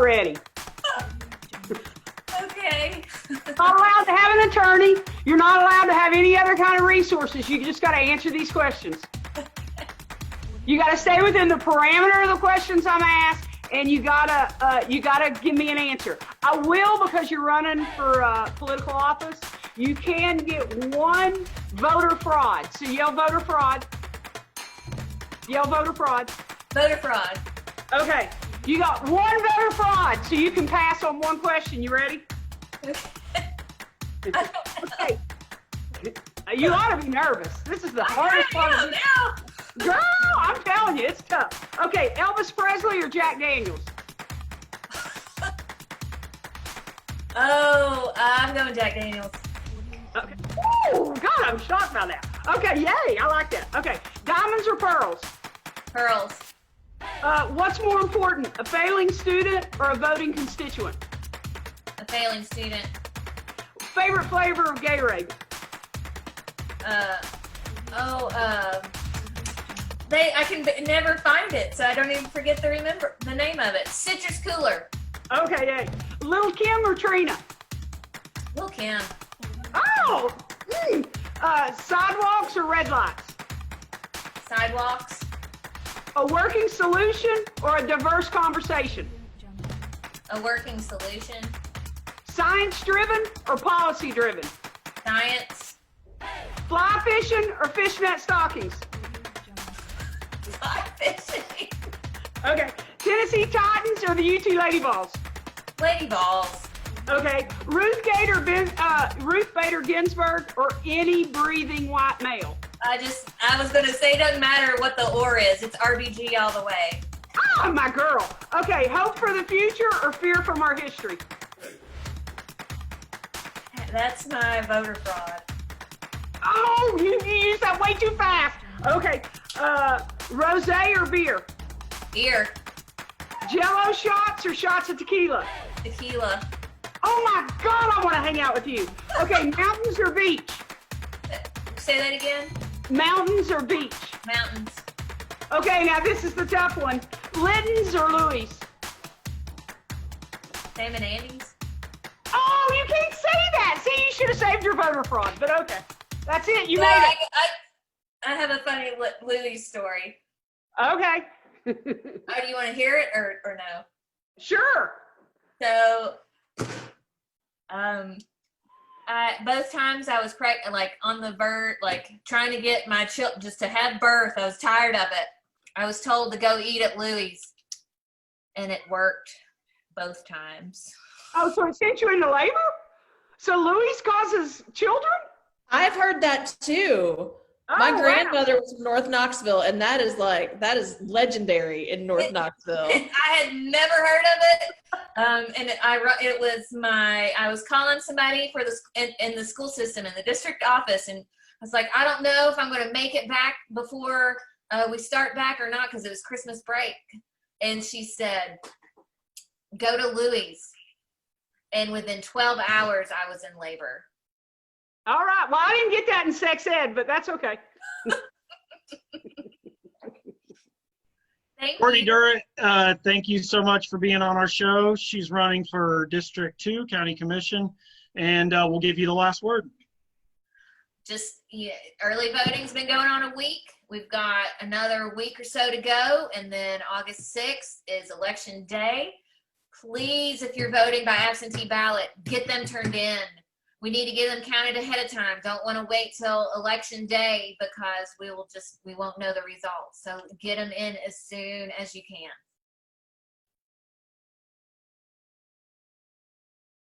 already. Okay. Not allowed to have an attorney. You're not allowed to have any other kind of resources. You just got to answer these questions. You got to stay within the parameter of the questions I'm asked, and you gotta uh, you gotta give me an answer. I will because you're running for uh, political office. You can get one voter fraud. So yell voter fraud. Yell voter fraud. Voter fraud. Okay. You got one voter fraud, so you can pass on one question. You ready? Okay. You ought to be nervous. This is the hardest part of this. Girl, I'm telling you, it's tough. Okay, Elvis Presley or Jack Daniels? Oh, I'm going Jack Daniels. Okay. Ooh, God, I'm shocked by that. Okay, yay, I like that. Okay, diamonds or pearls? Pearls. Uh, what's more important, a failing student or a voting constituent? A failing student. Favorite flavor of Gatorade? Uh, oh, um, they. I can b- never find it, so I don't even forget to remember the name of it. Citrus cooler. Okay, yay. Little Kim or Trina? Lil Kim. Oh, mm. uh, sidewalks or red lights? Sidewalks. A working solution or a diverse conversation? A working solution. Science driven or policy driven? Science. Fly fishing or fishnet stockings? Fly fishing. Okay. Tennessee Titans or the UT Lady Balls? Lady balls. Okay. Ruth Gator, ben, uh, Ruth Bader Ginsburg or any breathing white male? I just. I was gonna say, it doesn't matter what the or is. It's RBG all the way. Oh, my girl. Okay. Hope for the future or fear from our history? That's my voter fraud. Oh, you, you used that way too fast. Okay. Uh, rose or beer? Beer. Jello shots or shots of tequila? Tequila. Oh my God, I want to hang out with you. Okay, mountains or beach? Say that again. Mountains or beach? Mountains. Okay, now this is the tough one. Litton's or Louis? Sam and Andy's. Oh, you can't say that. See, you should have saved your voter fraud, but okay. That's it. You Well, made I, it. I, I have a funny Lu- Louis story. Okay. Oh, do you want to hear it or, or no? sure. So, um, I both times I was pregnant, like on the verge, like trying to get my child just to have birth. I was tired of it. I was told to go eat at Louis, and it worked both times. Oh, so it sent you into labor? So Louis causes children? I've heard that too. Oh, My wow. grandmother was from North Knoxville, and that is like that is legendary in North Knoxville. I had never heard of it. Um, and it, I ru- it was my I was calling somebody for the sc- in, in the school system in the district office, and I was like, I don't know if I'm going to make it back before uh, we start back or not because it was Christmas break. And she said, "Go to Louis." And within 12 hours, I was in labor. All right. Well, I didn't get that in sex ed, but that's okay. Thank Courtney you. Durrett, uh, thank you so much for being on our show. She's running for District 2 County Commission, and uh, we'll give you the last word. just yeah, early voting's been going on a week. We've got another week or so to go, and then August 6th is election day. Please, if you're voting by absentee ballot, get them turned in. We need to get them counted ahead of time. Don't want to wait till election day because we will just we won't know the results. So get them in as soon as you can.